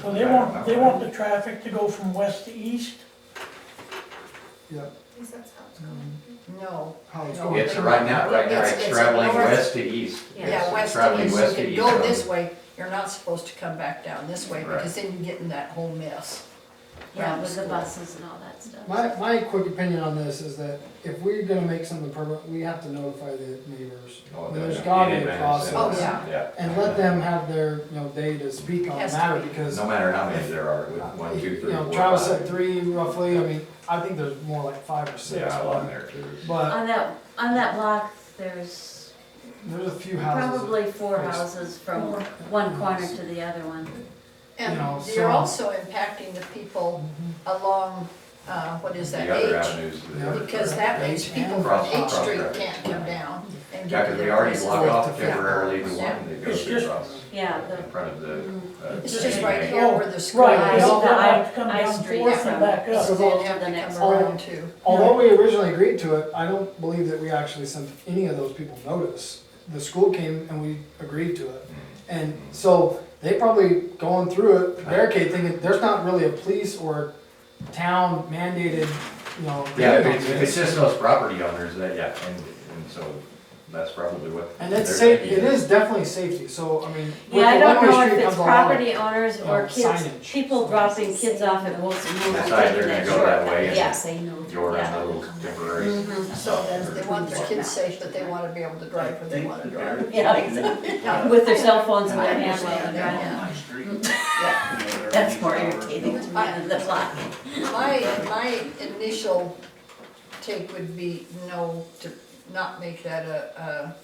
So they want, they want the traffic to go from west to east? Yeah, At least that's how it's going. No. how it's No. going. It's right now, right now, It's- it's it's traveling north. west to east. Yeah, It's west to Traveling east, west you to can east. go traveling- this way, you're not supposed to come back down this way, Right. because then you get in that whole mess. Yeah, with the Homeschool. buses and all that stuff. My, my quick opinion on this is that if we're gonna make something permanent, we have to notify the neighbors. Oh, And There's yeah. In gotta be a advance, process. Oh, yeah. And let them have their, you know, day to speak on the Has to matter be. because. No matter how many there are, with one, two, You three, know, four, Travis said five. three roughly, I mean, I think there's more like five or six. Yeah, but- along there too. But On that, on that block, there's there's a few houses. probably four There's- houses from one corner to the other one. And know, you're so- also impacting the people along, uh, what is that, The other H? avenues. to the Yeah. other Because side. that means people from Cross- H cross Street traffic. can't come down and Yeah, get to because we their already places. blocked off Yeah. temporarily the one that It's goes just- across Yeah, in the, front of the. uh, It's just main right gate. here where the school Right, is. they all the have to I- come I down street fourth from- and back Yeah, So up. they'll to have the to next come around too. Although we originally agreed to it, I don't believe that we actually sent any of those people notice. The school came and we agreed to it. And so they probably going through it, barricade thinking, there's not really a police or town mandated, you know. Yeah, if thing on it's, if this. it's just those property owners, that, yeah, and, and so that's probably what. And it's they're safe, it thinking. is definitely safety, so I mean. with yeah, I the don't one-way know if street it's comes along with- property owners or uh, kids, signage. people dropping kids off at Wilson Moon. That's either taking gonna that go that shortcut. way and- Yeah, say no. Go around Yeah. the uh, little temporary. Mhm. So then they want their kids safe, but they wanna be able to drive when they wanna drive. Yeah. Yeah, exactly. With their cell phones in their hand while they're Yeah. driving. My street. Yeah. You know, there are That's these more hours. irritating to me than the block. My, my initial take would be no, to not make that a,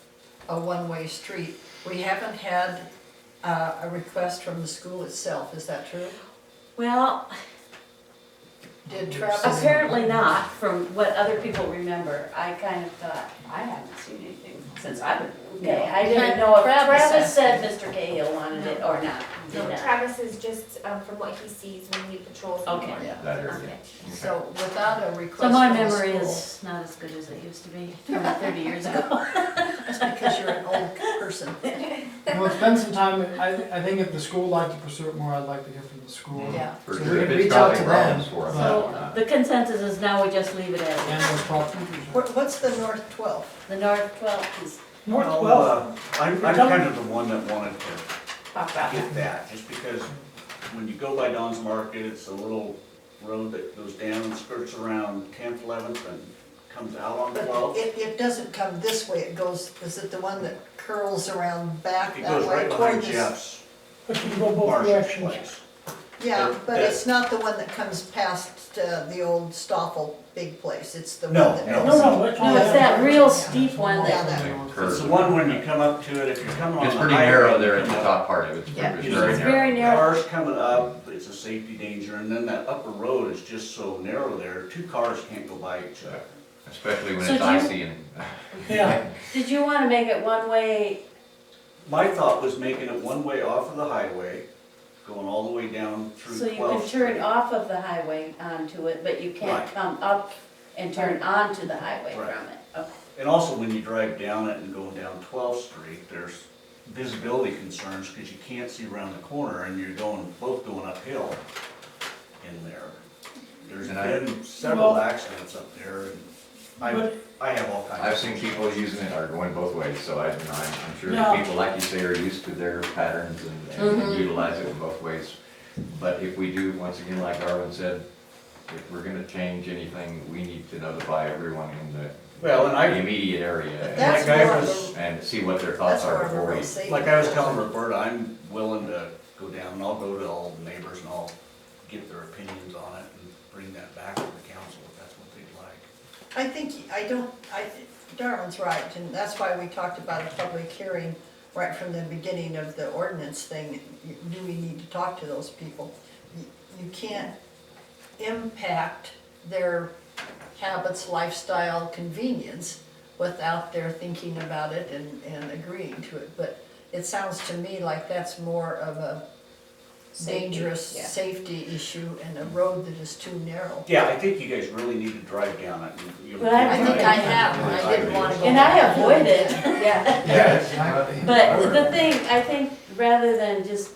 a, a one-way street. We haven't had, uh, a request from the school itself, is that true? Well, Did Travis? Apparently not, from what other people remember. I kind of thought, I haven't seen anything since I've been, okay, I didn't know if Travis Travis said Mr. Cahill wanted it or not. No, Did not. Travis is just, um, from what he sees when he patrols. the Okay. morning. Yeah. That area. Okay. So without a request So from my the memory school, is not as good as it used to be, thirty years ago. it's because you're an old person. Well, it's been some time, I, I think if the school liked to pursue it more, I'd like to hear from the school. Yeah. For So sure, we if can it's reach out to causing them. problems for them. So the consensus is now we just leave it And as those properties. What, what's the North Twelfth? the North Twelfth is, North Well, twelfth, uh, I'm, I'm kind of the one that wanted to pop out. get that, just because when you go by Don's Market, it's a little road that goes down and skirts around tenth, eleventh, and comes out on But twelfth. it, it doesn't come this way, it goes, is it the one that curls around back It that goes way right toward behind the Jeff's, but you can go both Marsh's directions. place. Yeah, That- but that- it's not the one that comes past uh, the old Stoffel big place, it's the one No, that. no. No, no, that's No, all. it's that real steep one Yeah, that, that- It's the one when you come up to it, if you're coming on the It's pretty highway. narrow there you at the come up, top part of it, it's Yeah. pretty- It's it's very it's narrow. very narrow. Cars coming up, it's a safety danger, and then that upper road is just so narrow there, two cars can't go by each other. Especially when So it's do you- icy and, Yeah, Did you wanna make it one way? My thought was making it one way off of the highway, going all the way down So through you can twelfth. turn off of the highway onto it, but you can't Right. come up and turn onto the highway Right. from it. Okay. And also when you drive down it and going down twelfth street, there's visibility concerns because you can't see around the corner and you're going, both going uphill in there. There's And I- been several Well- accidents up there and I, but I have all kinds of. I've seen people using it are going both ways, so I, you know, I'm I'm sure No. that people, like you say, are used to their patterns and- Mm-hmm. and utilize it in both ways. But if we do, once again, like Darwin said, if we're gonna change anything, we need to notify everyone in the Well, and I- the immediate area. and- That's Like I more was- of a, and see what their that's thoughts more are of a before real we. safety. Like I was telling Roberta, I'm willing to go down and I'll go to all the neighbors and I'll get their opinions on it and bring that back to the council if that's what they'd like. I think, I don't, I, Darwin's right, and that's why we talked about a public hearing right from the beginning of the ordinance thing. You- Do we need to talk to those people? You you can't impact their habits, lifestyle, convenience without their thinking about it and, and agreeing to it. But it sounds to me like that's more of a Safety, dangerous yeah. safety issue and a road that is too narrow. Yeah, I think you guys really need to drive down it. and you'll- But I I think I have, and I didn't want to go. And I avoid it, yeah. Yeah. Exactly. But the thing, I think, rather than just